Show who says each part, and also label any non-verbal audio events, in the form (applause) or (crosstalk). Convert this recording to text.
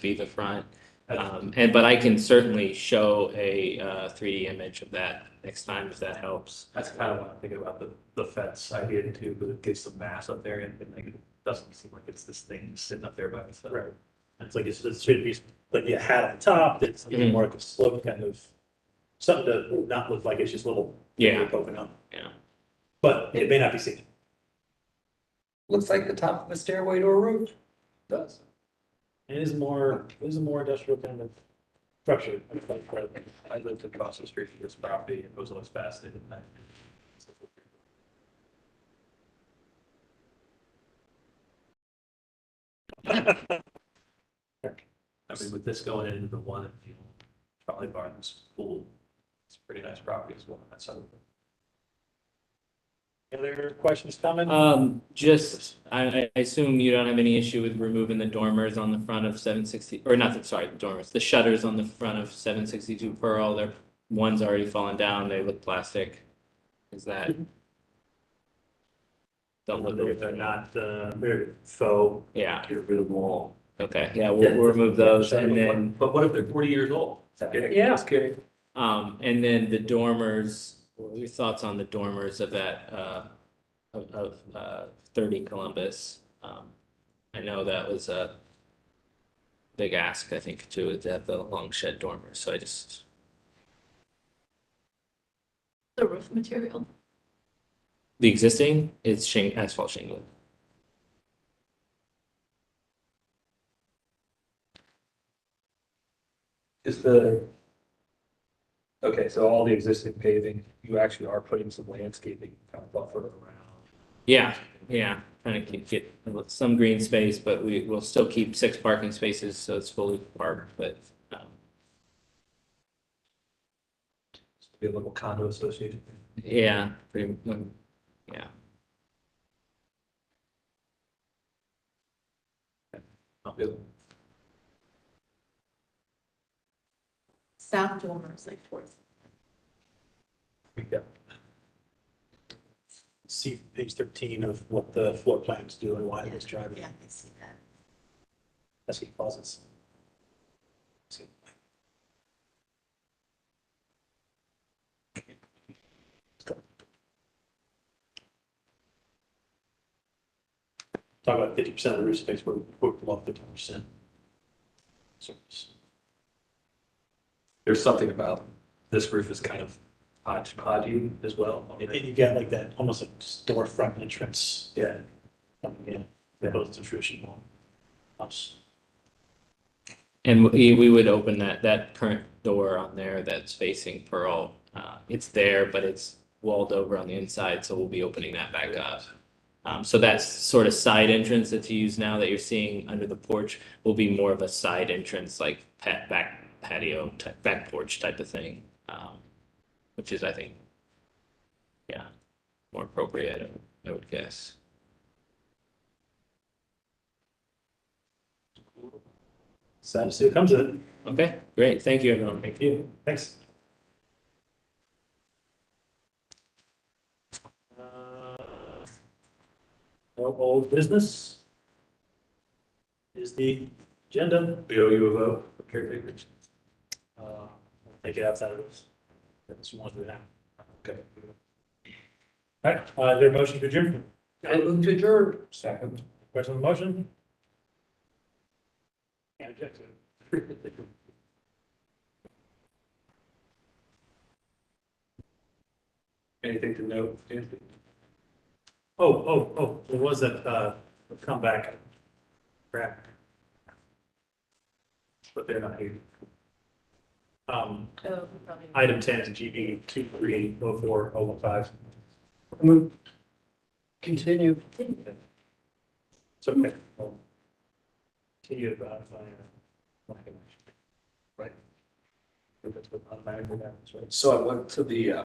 Speaker 1: be the front. Um, and, but I can certainly show a, uh, three D image of that next time if that helps.
Speaker 2: That's kind of what I'm thinking about the, the fence idea too, but it gives some mass up there and then like, it doesn't seem like it's this thing sitting up there by itself.
Speaker 3: Right. It's like, it's, it's should be, like you had on top, that's a
Speaker 1: Mhm.
Speaker 3: little more like a slope kind of, something to not look like it's just little.
Speaker 1: Yeah.
Speaker 3: Poking up.
Speaker 1: Yeah.
Speaker 3: But it may not be seen.
Speaker 4: Looks like the top of a stairway to a roof.
Speaker 3: Does. It is more, it is a more industrial kind of structure. I feel like, rather than-
Speaker 2: I lived across the street from this property, it was always fascinating. I mean, with this going into the one, that you know, probably Barton's pool, it's a pretty nice property as well, that's something.
Speaker 3: Any other questions, comments?
Speaker 1: Um, just, I, I assume you don't have any issue with removing the dormers on the front of seven sixty, or not, the- sorry, the dormers, the shutters on the front of seven sixty-two Pearl, they're, one's already fallen down, they look plastic. Is that? Don't look,
Speaker 3: They're they're not, uh, they're faux.
Speaker 1: yeah,
Speaker 3: Get rid of them all.
Speaker 1: okay, yeah, we'll, we'll remove those and then.
Speaker 2: But what if they're forty years old?
Speaker 3: Yeah. Okay.
Speaker 1: Um, and then the dormers, what are your thoughts on the dormers of that, uh, of, of, uh, thirty Columbus? Um, I know that was a big ask, I think, to, to have the long shed dormers, so I just,
Speaker 5: The roof material.
Speaker 1: the existing is shing, asphalt shingling.
Speaker 2: Is the. Okay, so all the existing paving, you actually are putting some landscaping kind of buffer around.
Speaker 1: Yeah, yeah, trying to keep, get some green space, but we will still keep six parking spaces, so it's fully parked, but, um,
Speaker 2: Be a little condo association.
Speaker 1: yeah, pretty, yeah.
Speaker 2: Not really.
Speaker 5: South dormer is like towards.
Speaker 2: Yeah.
Speaker 3: See page thirteen of what the floor plans do and why it's driving.
Speaker 5: Yeah, I see that.
Speaker 3: That's what causes. Talk about fifty percent of the roof space, we're, we're below fifty percent.
Speaker 2: There's something about this roof is kind of hodgepodge as well.
Speaker 3: And then you got like that, almost like storefront entrance
Speaker 2: Yeah.
Speaker 3: coming in, opposed to traditional house.
Speaker 1: And we, we would open that, that current door on there that's facing Pearl. Uh, it's there, but it's walled over on the inside, so we'll be opening that back up. Um, so that sort of side entrance that's used now that you're seeing under the porch will be more of a side entrance, like pat, back patio, type, back porch type of thing. Um, which is, I think, yeah, more appropriate, I would guess.
Speaker 3: So see what comes of it.
Speaker 1: Okay, great. Thank you, everyone.
Speaker 3: Thank you. Thanks. Uh, No old business. Is the agenda.
Speaker 2: We owe you a vote for caretakers.
Speaker 3: Uh, I'll Take it outside of this. That's one do that.
Speaker 2: Okay.
Speaker 3: All right, uh, is there a motion to adjourn?
Speaker 4: I move to adjourn.
Speaker 2: Second.
Speaker 3: Question on the motion? Can't object to it. (laughs)
Speaker 2: Anything to note, Anthony?
Speaker 3: Oh, oh, oh, there was that, uh, comeback. Crap,
Speaker 2: But they're not here.
Speaker 3: um,
Speaker 5: Oh, probably.
Speaker 3: item ten, GB two three eight oh four oh one five.
Speaker 4: Move. Continue.
Speaker 3: It's okay. Continue about my. Right.
Speaker 2: So I went to the, uh,